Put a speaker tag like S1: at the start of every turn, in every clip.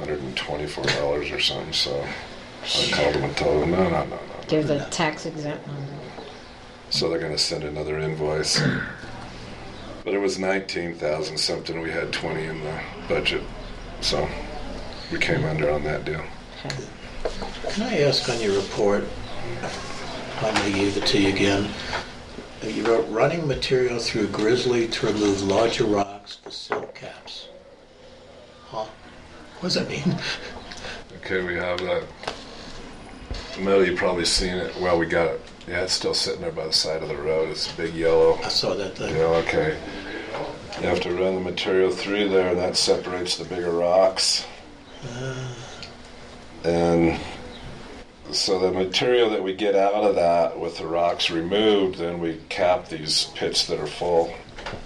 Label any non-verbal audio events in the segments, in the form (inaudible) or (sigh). S1: hundred and twenty-four dollars or something, so I called them and told them, no, no, no, no, no.
S2: There's a tax exempt on that.
S1: So they're gonna send another invoice. But it was nineteen thousand something, we had twenty in the budget, so we came under on that deal.
S2: Okay.
S3: Can I ask on your report, I'm going to give it to you again. You wrote running material through grizzly to remove larger rocks for silt caps. Huh? What does that mean? (laughs)
S1: Okay, we have that. Metal, you probably seen it, well, we got it, yeah, it's still sitting there by the side of the road, it's big yellow.
S3: I saw that thing.
S1: Yeah, okay. You have to run the material through there, and that separates the bigger rocks. And so the material that we get out of that with the rocks removed, then we cap these pits that are full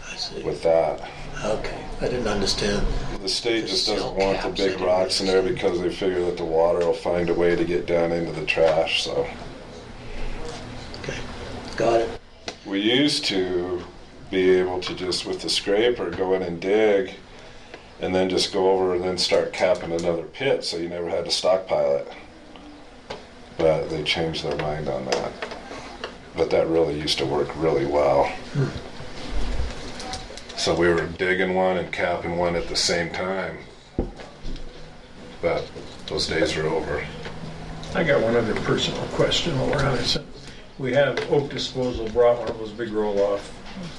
S3: I see.
S1: with that.
S3: Okay, I didn't understand.
S1: The state just doesn't
S3: Just
S1: want the
S3: caps
S1: big
S3: everywhere.
S1: rocks in there because they figure that the water will find a way to get down into the trash, so.
S3: Okay, got it.
S1: We used to be able to just with the scraper go in and dig and then just go over and then start capping another pit so you never had to stockpile it. But they changed their mind on that. But that really used to work really well. So we were digging one and capping one at the same time. But those days are over.
S4: I got one other personal question while we're on it. So We have Oak Disposal brought one of those big roll-off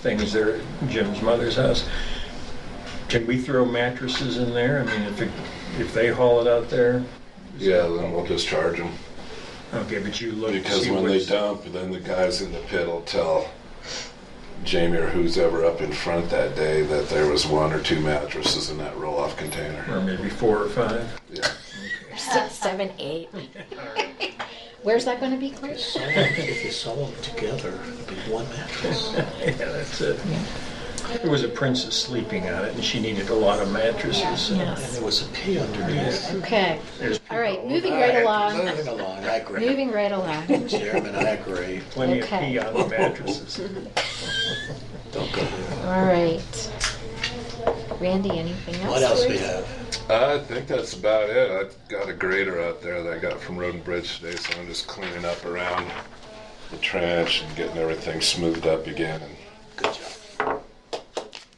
S4: things there at Jim's mother's house. Can we throw mattresses in there? I mean, if, it- if they haul it out there?
S1: Yeah, then we'll just charge them.
S4: Okay, but you look. to
S1: Because
S4: see
S1: when they
S4: what's-
S1: dump, then the guys in the pit will tell Jamie or who's ever up in front that day that there was one or two mattresses in that roll-off container.
S4: Or maybe four or five. (laughs)
S1: Yeah.
S2: Six, seven, eight. Where's that going to be, Claire?
S3: If you sew 'em- If you sew them together, it'd be one mattress.
S4: Yeah, that's it. There was a princess sleeping on it and she needed a lot of mattresses. and-
S3: And there was a P underneath.
S2: Okay.
S4: There's
S2: All right,
S4: people
S2: moving
S4: all
S2: right
S4: over.
S2: along.
S3: Moving along, I agree.
S2: Moving right along.
S3: Chairman, I agree.
S4: Plenty of
S2: Okay.
S4: pee on the mattresses.
S3: Don't go there.
S2: All right. Randy, anything else?
S3: What else
S2: for
S3: we
S2: us?
S3: have?
S1: I think that's about it. I've got a grader out there that I got from Road and Bridge today, so I'm just cleaning up around the trench and getting everything smoothed up again and
S3: Good job.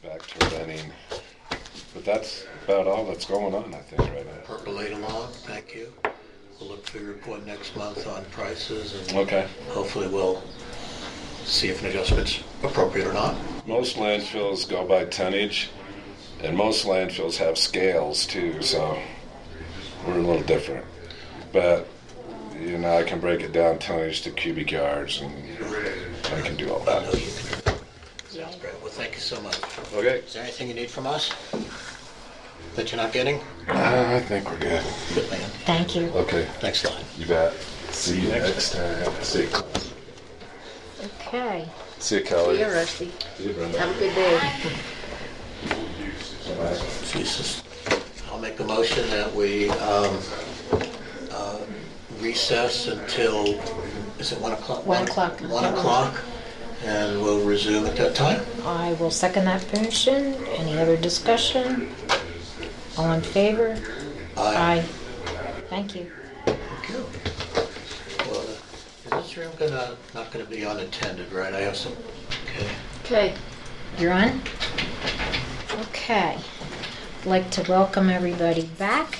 S1: back to running. But that's about all that's going on, I think, right now.
S3: percolate along, thank you. We'll look for your report next month on prices and
S1: Okay.
S3: hopefully we'll see if an adjustment's appropriate or not.
S1: Most landfills go by tonnage, and most landfills have scales too, so we're a little different. But, you know, I can break it down tonnage to cubic yards, and I can do all
S3: I know
S1: that.
S3: you can. Sounds great, well, thank you so much.
S1: Okay.
S3: Is there anything you need from us that you're not getting?
S1: Uh, I think we're good.
S3: Good man,
S2: Thank you.
S1: Okay,
S3: next line.
S1: you bet. See you next time. See you,
S2: Okay.
S1: See you Kelly.
S5: Yeah, Rusty.
S1: See you, Brenda.
S5: Have a good day.
S3: Jesus. I'll make a motion that we um, uh, recess until, is it 1 o'clock?
S2: One o'clock.
S3: 1 o'clock, and we'll resume at that time.
S2: I will second that motion. Any other discussion? All in favor? Aye. Thank you.
S3: Thank you. Well, Is this room gonna, not gonna be unattended, right? I have some, okay.
S2: Okay. You're on? Okay. I'd like to welcome everybody back.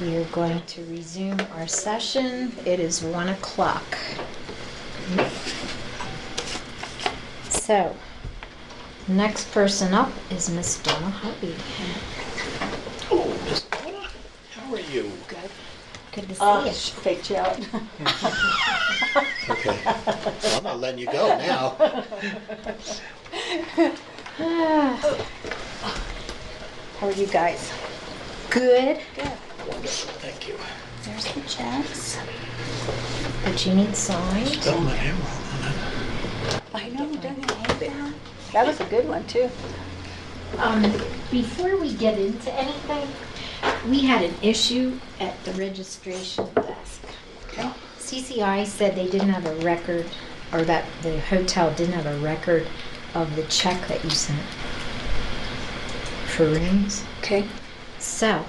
S2: We are going to resume our session. It is one o'clock. So, next person up is Miss Donna Hubby.
S3: Oh, Miss Donna, how are you?
S2: Good
S5: Uh,
S2: to see you.
S5: faked you out.
S3: Okay. Well, I'm not letting you go now.
S2: Ah,
S5: How are you guys?
S2: Good,
S3: Wonderful, (laughs) thank you.
S5: There's the checks.
S2: but you need signed.
S3: Spell my name wrong.
S5: I know, don't you hate that? That was a good one, too.
S2: Um, before we get into anything, we had an issue at the registration desk.
S5: Okay.
S2: CCI said they didn't have a record, or that the hotel didn't have a record of the check that you sent for rooms.
S5: Okay.
S2: So,